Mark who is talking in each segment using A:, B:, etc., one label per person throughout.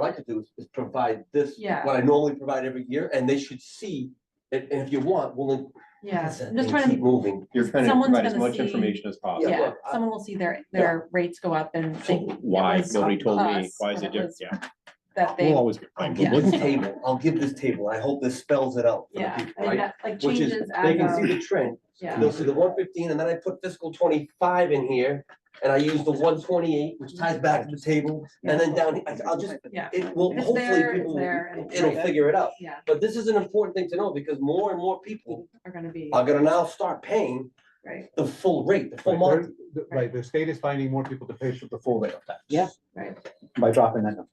A: like to do is, is provide this,
B: Yeah.
A: what I normally provide every year, and they should see. And, and if you want, we'll.
B: yeah,
A: increase it
B: I'm just
A: and
B: trying
A: keep
B: to,
A: Moving.
C: You're trying to
B: Someone's
C: provide as
B: gonna
C: much
B: see-
C: information as possible.
A: Yeah,
B: yeah,
A: look, I-
B: someone will see their, their rates go up and
C: So
B: think
C: Why,
B: was
C: nobody told me,
B: us
C: why is
B: and
C: it
B: it
C: different,
B: was-
C: yeah,
B: that they,
C: we'll always get
A: I'll
C: blamed.
A: give
B: Yeah.
A: this table, I'll give this table, I hope this spells it out for the
B: yeah, I
A: people,
B: mean,
A: right?
B: that, like
A: Which is,
B: changes
A: they
B: as
A: can see
B: of,
A: the trend,
B: yeah.
A: and they'll see the one fifteen, and then I put fiscal twenty-five in here, and I use the one twenty-eight, which ties back to the table, and then down, I- I'll just,
B: Yeah.
A: it will,
B: If it's
A: hopefully,
B: there, it's
A: people,
B: there, and
A: will-
B: it's
A: it'll
B: right.
A: figure it out.
B: Yeah,
A: But this is an important thing to know, because more and more people
B: are gonna be,
A: are gonna now start paying
B: right,
A: the full rate, the full
D: Right,
A: month.
D: they're- the- right, the state is finding more people to pay for the full rate of tax.
E: Yeah.
B: Right.
D: By dropping that number.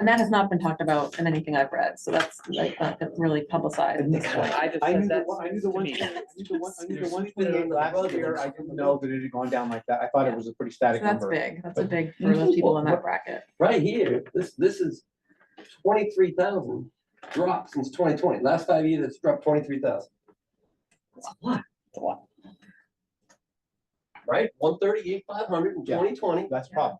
B: and that has not been talked about in anything I've read, so that's like not been really publicized.
E: And I just
D: I knew
E: said
D: the
E: that.
D: one, I knew the one,
E: to
D: thing- I knew the one, I knew the
A: There's
D: one
A: spin
D: twenty-eight
A: on the
D: last
A: bug
D: year,
A: that's-
D: I didn't know that it had gone down like that, I thought it was a pretty static
B: So that's
D: number.
B: big, that's a big for those people in that bracket,
A: right here, this, this is twenty-three thousand drop since twenty twenty. Last five years, it's dropped twenty-three thousand. That's a lot.
E: It's a lot.
A: Right? One thirty-eight, five hundred in
D: Yeah.
A: twenty twenty.
D: That's a problem.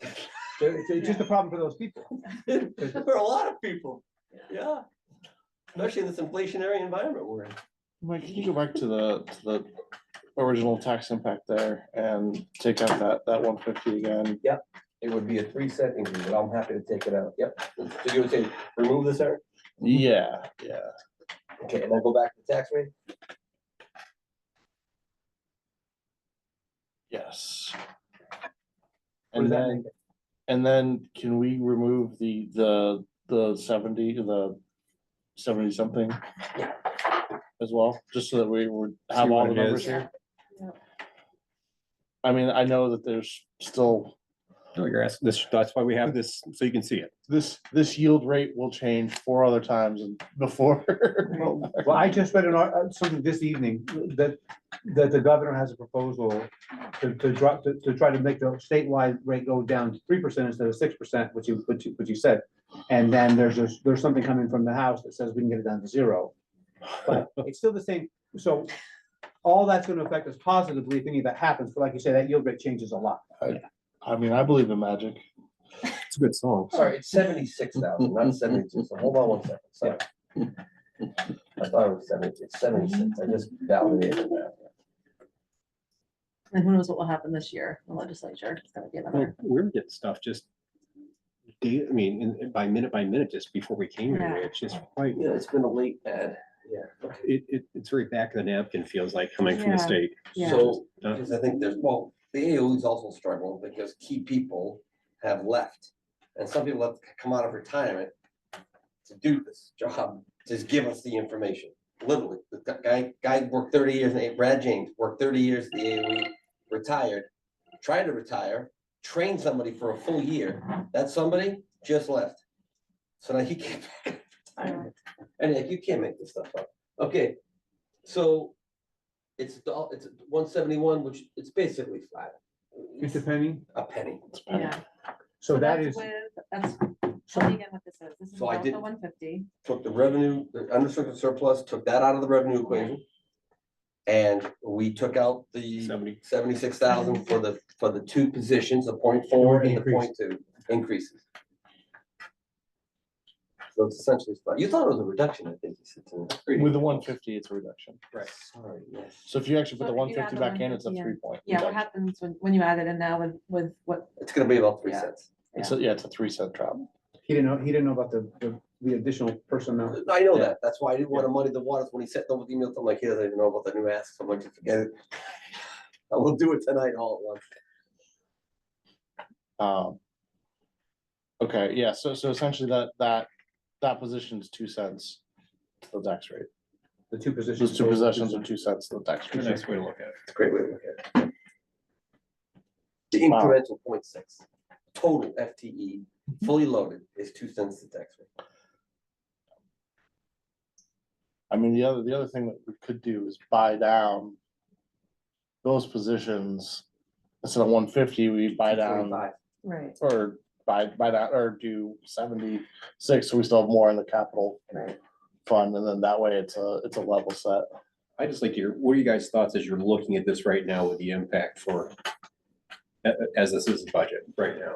D: It's, it's just a problem for those people.
A: For a lot of people, yeah. Especially in this inflationary environment we're in.
F: Mike, can you go back to the, to the original tax impact there and take out that, that one fifty again?
A: It would be a three-cent increase, but I'm happy to take it out. Yep. So you would say, remove this, Eric?
F: Yeah, yeah.
A: Okay, and then go back to the tax rate?
F: Yes.
A: What does
F: And
A: that
F: then, and then can we remove the, the, the seventy, the seventy something? As well, just so that we would have
C: See what
F: all the
C: it
F: numbers
C: is.
F: here.
B: Yeah.
F: I mean, I know that there's still,
C: No, you're asking, this, that's why we have this, so you can see it.
F: this, this yield rate will change four other times and before.
D: Well, well, I just read an, ar- uh, something this evening, that, that the governor has a proposal to, to drop, to, to try to make the statewide rate go down to three percent instead of six percent, which you, which you, which you said. And then there's, there's, there's something coming from the House that says we can get it down to zero. But it's still the same, so all that's gonna affect us positively if any of that happens, but like you say, that yield rate changes a lot.
F: I mean, I believe in magic.
C: It's a good song.
A: Sorry, it's seventy-six thousand, not seventy-two, so hold on one second, sorry. I thought it was seventy, it's seventy-six, I just validated that.
B: and who knows what will happen this year, in the legislature, it's gonna be another.
C: Well, we were getting stuff just day, I mean, in- in- by minute by minute, just before we came here,
B: Yeah.
C: it's just quite,
A: Yeah, it's been a late uh, ad, yeah.
C: it, it, it's very back of the napkin, feels like, coming from
B: Yeah.
C: the state.
B: Yeah.
A: Oh, So,
C: Uh,
A: because I think there's, well, the AOE is also struggling because key people have left. And some people have come out of retirement to do this job, just give us the information, literally. The guy, guy worked thirty years, eh, Brad James worked thirty years, at the AOE, retired, tried to retire, trained somebody for a full year. That somebody just left. So now he can't. And like, you can't make this stuff up. Okay, so it's, all it's one seventy-one, which it's basically flat.
D: It's a penny,
A: A penny.
B: Yeah.
D: so that
B: that's
D: is,
B: with- That's, tell me again what this is, this is
A: So I
B: both the
A: didn't-
B: one fifty,
A: Took the revenue, the unrestricted surplus, took that out of the revenue equation. And we took out the
C: Somebody,
A: seventy-six thousand for the, for the two positions, the point four and the point two increases. So it's essentially, flat. you thought it was a reduction, I think you said. to me.
F: With the one fifty, it's a reduction.
A: Right, sorry, yes.
F: So if you actually put
B: So
F: the
B: if
F: one
B: you add
F: fifty
B: the
F: back in, it's a
B: 150 in,
F: three point.
B: yeah, what happens when, when you add it in now with, with what,
A: It's gonna be about three
B: Yeah.
A: cents.
F: It's, a- yeah, it's a three cent drop.
D: he didn't know, he didn't know about the, the- the additional personnel.
A: I know
F: Yeah.
A: that, that's why I didn't wanna muddy the waters when he sent over the email, I'm like, he doesn't even know about the new ask, so I'm like, forget it. I will do it tonight all at once.
F: Um. Okay, yeah, so, so essentially that, that, that position's two cents to the tax rate.
D: The two positions.
F: Those two
D: so-
F: possessions are two cents to the tax
C: a
F: rate.
C: nice way to look at it.
A: It's a great way to look at it. The
F: Wow.
A: incremental point six, total FTE, fully loaded, is two cents to tax rate.
F: I mean, the other, the other thing that we could do is buy down those positions. Instead of one fifty, we buy down
A: 2.25.
B: right,
F: or buy, buy that, or do seventy-six, so we still have more in the capital
B: right.
F: fund, and then that way it's a, it's a level set.
C: I just like your, what are you guys' thoughts as you're looking at this right now with the impact for, a- a- as this is a budget right now?